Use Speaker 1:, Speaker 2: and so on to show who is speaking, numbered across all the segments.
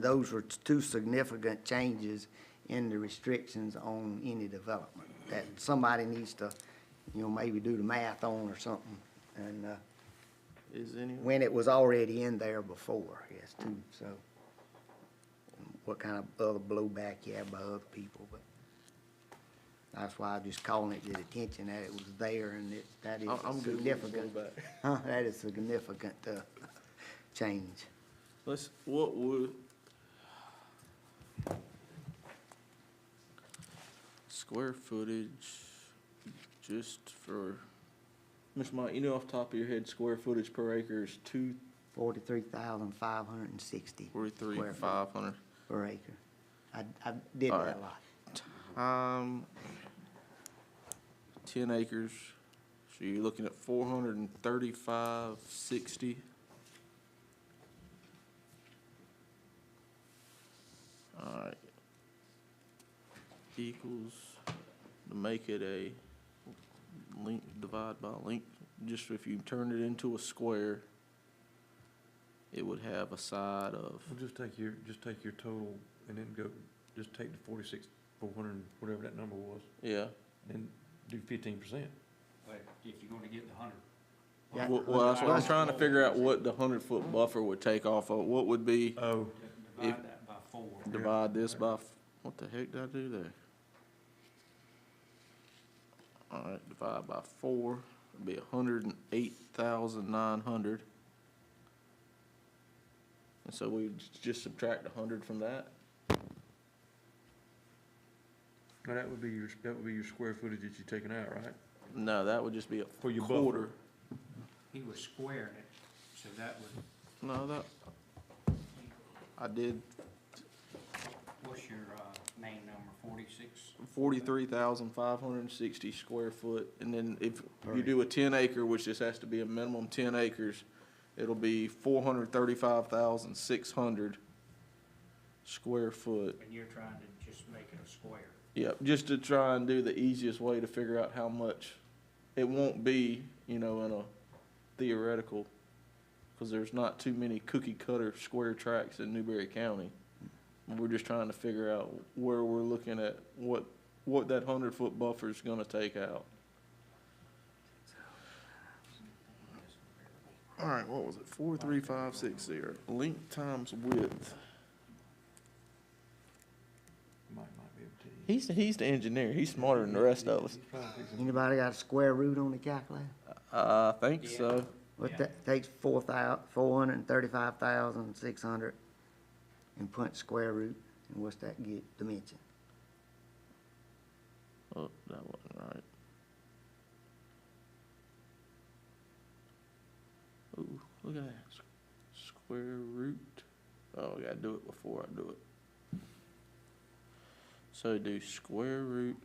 Speaker 1: Those were two significant changes in the restrictions on any development that somebody needs to, you know, maybe do the math on or something. And, uh,
Speaker 2: Is any,
Speaker 1: when it was already in there before, yes, too, so. What kind of other blowback you have by other people, but that's why I'm just calling it the attention that it was there and it, that is
Speaker 2: I'm, I'm
Speaker 1: a
Speaker 2: good with this
Speaker 1: significant.
Speaker 2: one, but
Speaker 1: Huh, that is significant, uh, change.
Speaker 2: Let's, what would? Square footage, just for, Mr. Mike, you know off the top of your head, square footage per acre is two
Speaker 1: Forty-three thousand five hundred and sixty
Speaker 2: forty-three,
Speaker 1: Square foot.
Speaker 2: five hundred.
Speaker 1: per acre. I, I did that
Speaker 2: Alright.
Speaker 1: a lot.
Speaker 2: Um, ten acres, so you're looking at four hundred and thirty-five, sixty. Alright. Equals, to make it a link, divide by link, just if you turn it into a square, it would have a side of,
Speaker 3: Well, just take your, just take your total and then go, just take the forty-six, four hundred, whatever that number was,
Speaker 2: yeah.
Speaker 3: and do fifteen percent.
Speaker 4: But if you're gonna get the hundred.
Speaker 1: Yeah.
Speaker 2: Well, well, that's what I'm trying to figure out what the hundred foot buffer would take off of, what would be,
Speaker 3: Oh.
Speaker 4: Divide that by four.
Speaker 2: divide this by, f- what the heck did I do there? Alright, divide by four, it'd be a hundred and eight thousand nine hundred. And so we j- just subtract a hundred from that,
Speaker 3: Now, that would be your, that would be your square footage that you're taking out, right?
Speaker 2: no, that would just be
Speaker 3: For
Speaker 2: a
Speaker 3: your buffer.
Speaker 2: quarter,
Speaker 4: He was squaring it, so that would,
Speaker 2: no, that. I did
Speaker 4: what's your, uh, main number, forty-six?
Speaker 2: forty-three thousand five hundred and sixty square foot, and then if you do a ten acre, which this has to be a minimum ten acres, it'll be four hundred thirty-five thousand six hundred square foot.
Speaker 4: And you're trying to just make it a square.
Speaker 2: Yep, just to try and do the easiest way to figure out how much, it won't be, you know, in a theoretical, because there's not too many cookie cutter square tracks in Newberry County. We're just trying to figure out where we're looking at, what, what that hundred foot buffer is gonna take out. All right, what was it? Four, three, five, six, zero. Length times width.
Speaker 3: Mike might be able to. tell you.
Speaker 2: He's, he's the engineer. He's smarter than the rest of us.
Speaker 3: He's trying to fix it.
Speaker 1: Anybody got a square root on the calculator?
Speaker 2: I think so.
Speaker 1: Well,
Speaker 4: Yeah.
Speaker 1: that takes four thou, four hundred and thirty-five thousand, six hundred, and punch square root, and what's that get, dimension?
Speaker 2: Oh, that wasn't right. Ooh, look at that. S- Square root. Oh, I gotta do it before I do it. So do square root,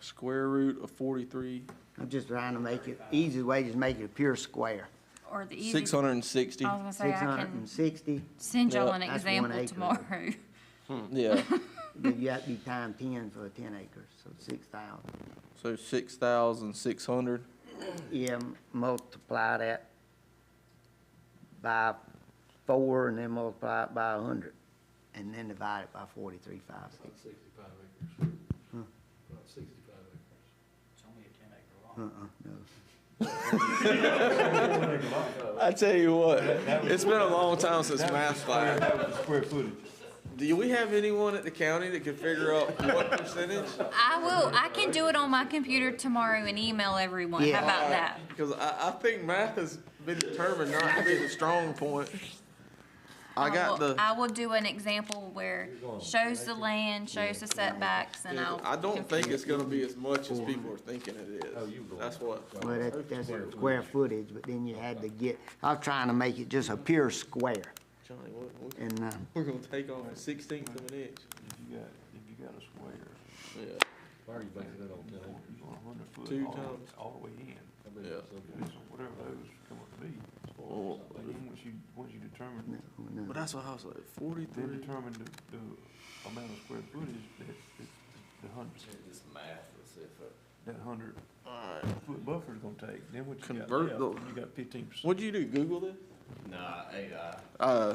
Speaker 2: square root of forty-three,
Speaker 1: I'm just trying to make it, easy way, just make it a pure square.
Speaker 5: Or the easy, Oh. I
Speaker 2: six
Speaker 5: was
Speaker 2: hundred and sixty.
Speaker 5: gonna say,
Speaker 1: Six
Speaker 5: I
Speaker 1: hundred and
Speaker 5: can
Speaker 1: sixty,
Speaker 5: send y'all
Speaker 2: Yeah,
Speaker 5: an
Speaker 1: that's one
Speaker 5: example
Speaker 1: acre.
Speaker 5: tomorrow.
Speaker 2: Hmm, Yeah,
Speaker 1: but you have to be times ten for a ten acres, so six thousand.
Speaker 2: so six thousand six hundred.
Speaker 1: Yeah, m- multiply that by four, and then multiply it by a hundred, and then divide it by forty-three, five, six.
Speaker 6: Sixty-five acres. About sixty-five acres.
Speaker 4: It's only a ten acre lot.
Speaker 1: Uh-uh, no.
Speaker 2: I tell you what, it's been a long time since math class.
Speaker 3: That was the square footage.
Speaker 2: Do we have anyone at the county that can figure out what percentage?
Speaker 5: I will, I can do it on my computer tomorrow and email everyone.
Speaker 1: Yeah.
Speaker 5: How about that?
Speaker 2: Because I, I think math has been determined not to be the strong point. I got
Speaker 5: will- I
Speaker 2: the,
Speaker 5: will do an example where shows the land, shows the setbacks, and I'll.
Speaker 2: I don't think it's gonna be as much as people are thinking it is. That's what,
Speaker 1: Well, that, that's square footage, but then you had to get, I was trying to make it just a pure square,
Speaker 2: Johnny, what, what-
Speaker 1: and, uh,
Speaker 2: we're gonna take off a sixteenth of an inch.
Speaker 3: If you got, if you got a square,
Speaker 2: Yeah,
Speaker 6: Why are you basing it on
Speaker 3: you
Speaker 6: ten
Speaker 3: want,
Speaker 6: acres?
Speaker 3: you want a hundred foot
Speaker 2: Two
Speaker 3: all, the-
Speaker 2: times.
Speaker 3: all the way in.
Speaker 6: I bet
Speaker 2: Yeah.
Speaker 6: it's something.
Speaker 3: So whatever those come up to be.
Speaker 2: Well,
Speaker 3: But then once you, once you
Speaker 1: no,
Speaker 3: determine,
Speaker 1: no.
Speaker 2: but that's what I was like,
Speaker 3: then
Speaker 2: forty-three.
Speaker 3: determine the, the amount of square footage that, that, the hundred,
Speaker 6: It's math, let's see if it.
Speaker 3: that hundred
Speaker 2: Alright,
Speaker 3: foot buffer's gonna take, then what you got
Speaker 2: Convert
Speaker 3: left,
Speaker 2: the-
Speaker 3: you got fifteen percent.
Speaker 2: what'd you do, Google this?
Speaker 7: Nah, I, uh,
Speaker 2: Uh,